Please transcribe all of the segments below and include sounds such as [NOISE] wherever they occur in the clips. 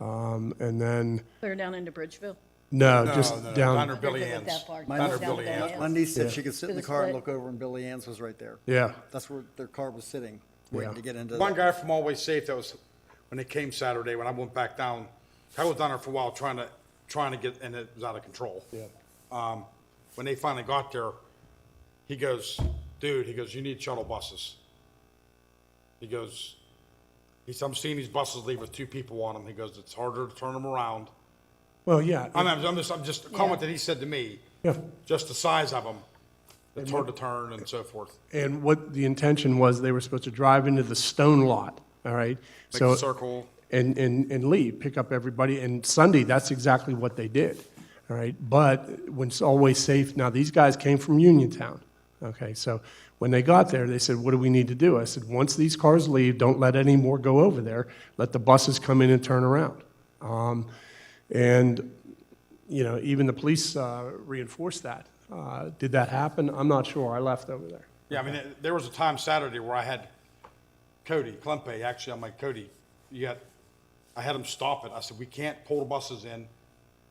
Um, And then, Clear down into Bridgeville. no, Oh, No, just no, no, down, Under Billy They're good at Ann's. that part. Under Down Billy there. Ann's. My niece said she could sit in To the the car and split. look over, and Billy Ann's was right there. yeah, That's where their car was sitting, waiting Yeah. to get into. One the- guy from Always Safe that was, when they came Saturday, when I went back down, I was down there for a while trying to, trying to get, and it was out of control. Yeah. Um, when they finally got there, he goes, dude, he goes, you need shuttle buses. He goes, he said, I'm seeing these buses leave with two people on them. He goes, it's harder to turn them around. well, yeah. I'm, I'm just, I'm just, a comment that he said to me, Yeah. just the size of them, it's hard to turn and so forth. And what the intention was, they were supposed to drive into the stone lot, all right? Make So- a circle. And, and, and leave, pick up everybody, and Sunday, that's exactly what they did, all right? But when it's always safe, now, these guys came from Uniontown, okay? So when they got there, they said, what do we need to do? I said, once these cars leave, don't let any more go over there, let the buses come in and turn around. Um, And you know, even the police uh, reinforced that. Uh, Did that happen? I'm not sure. I left over there. Yeah, I mean, there- there was a time Saturday where I had Cody, Clempe, actually, I'm like, Cody, you got, I had him stop it. I said, we can't pull the buses in.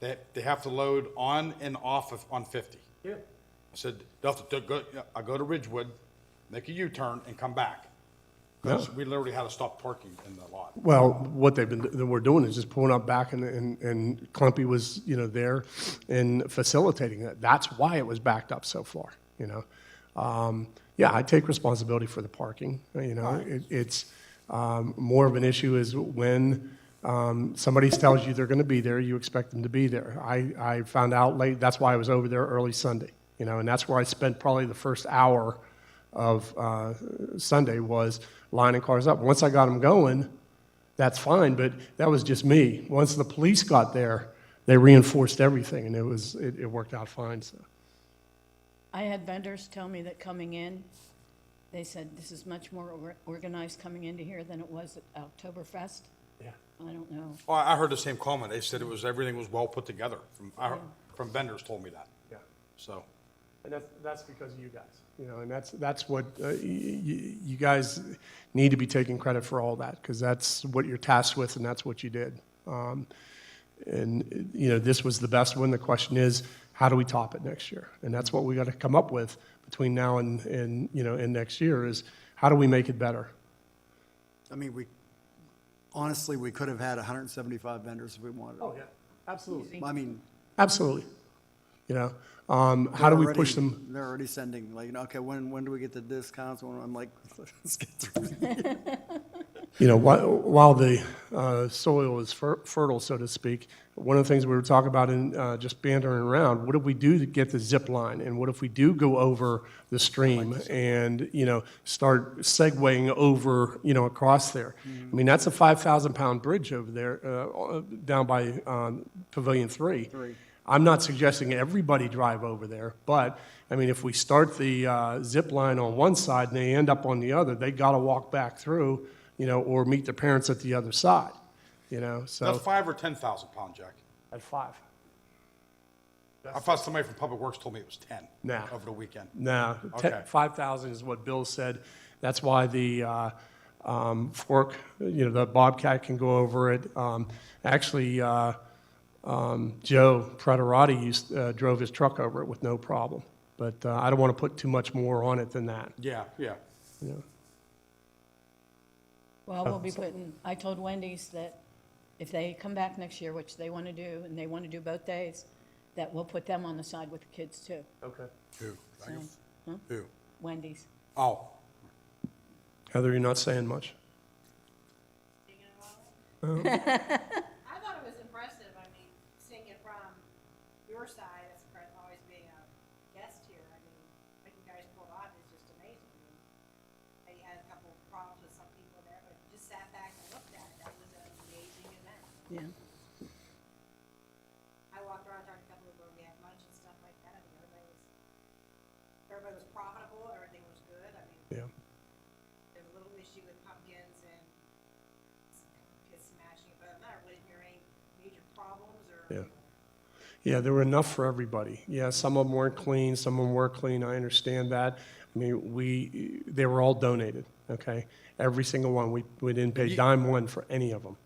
They, they have to load on and off of, on fifty. Yeah. I said, they'll have to go, I go to Ridgewood, make a U-turn and come back. 'Cause we literally had to stop parking in the lot. Well, what they've been, that we're doing is just pulling up back and, and, and Clumpy was, you know, there and facilitating that. That's why it was backed up so far, you know? Um, Yeah, I take responsibility for the parking, you know? It, it's, um, more of an issue is when, um, somebody tells you they're gonna be there, you expect them to be there. I, I found out late, that's why I was over there early Sunday, you know, and that's where I spent probably the first hour of, uh, Sunday was lining cars up. Once I got them going, that's fine, but that was just me. Once the police got there, they reinforced everything, and it was, it, it worked out fine, so. I had vendors tell me that coming in, they said this is much more or- organized coming into here than it was at Oktoberfest. Yeah. I don't know. Oh, I I heard the same comment. They said it was, everything was well put together. From, I heard- from vendors told me that, Yeah, so. and that's, that's because of you guys. You know, and that's, that's what, uh, y- y- you guys need to be taking credit for all that, because that's what you're tasked with, and that's what you did. Um, And, you know, this was the best one. The question is, how do we top it next year? And that's what we got to come up with between now and, and, you know, and next year is, how do we make it better? I mean, we, honestly, we could have had hundred and seventy-five vendors if we wanted. Oh, yeah, absolutely. I mean. Absolutely. You know, um, how do we push already- them? They're already sending, like, you know, okay, when, when do we get the discounts? When- I'm like, [LAUGHS] let's get through. You know, while, while the uh, soil is fer- fertile, so to speak, one of the things we were talking about in uh, just bantering around, what if we do to get the zip line? And what if we do go over the stream and, you know, start segueing over, you know, across there? I mean, that's a 5,000 pound bridge over there uh, down by um, Pavilion 3. Three. I'm not suggesting everybody drive over there, but, I mean, if we start the uh, zip line on one side and they end up on the other, they got to walk back through, you know, or meet their parents at the other side, you know, That's so. five or 10,000 pound, Jack. At five. I thought somebody from Public Works told me it was 10. No. Over the weekend. No, Okay. five thousand is what Bill said. That's why the uh, um, fork, you know, the Bobcat can go over it. Um, Actually, uh, um, Joe Praterati used, uh, drove his truck over it with no problem. But uh, I don't want to put too much more on it than that. Yeah, yeah. Well, we'll be putting, I told Wendy's that if they come back next year, which they want to do, and they want to do both days, that we'll put them on the side with the kids too, Okay. Who? Who? Wendy's. Oh, Heather, you're not saying much. [LAUGHS] I thought it was impressive. I mean, seeing it from your side as pre- always being a guest here, I mean, what you guys pulled off is just amazing. I mean, They had a couple of problems with some people there, but you just sat back and looked at it. That was an amazing event. Yeah. I walked around, talked to a couple of where we had lunch and stuff like that. I mean, everybody was, everybody was profitable. Everything was good. I mean, Yeah. there's a little issue with pumpkins and s- kids smashing, but I'm not really hearing major problems or. Yeah. Yeah, there were enough for everybody. Yeah, some of them weren't clean, some of them were clean, I understand that. I mean, we, they were all donated, okay? Every single one, we, we didn't pay dime one for any of them.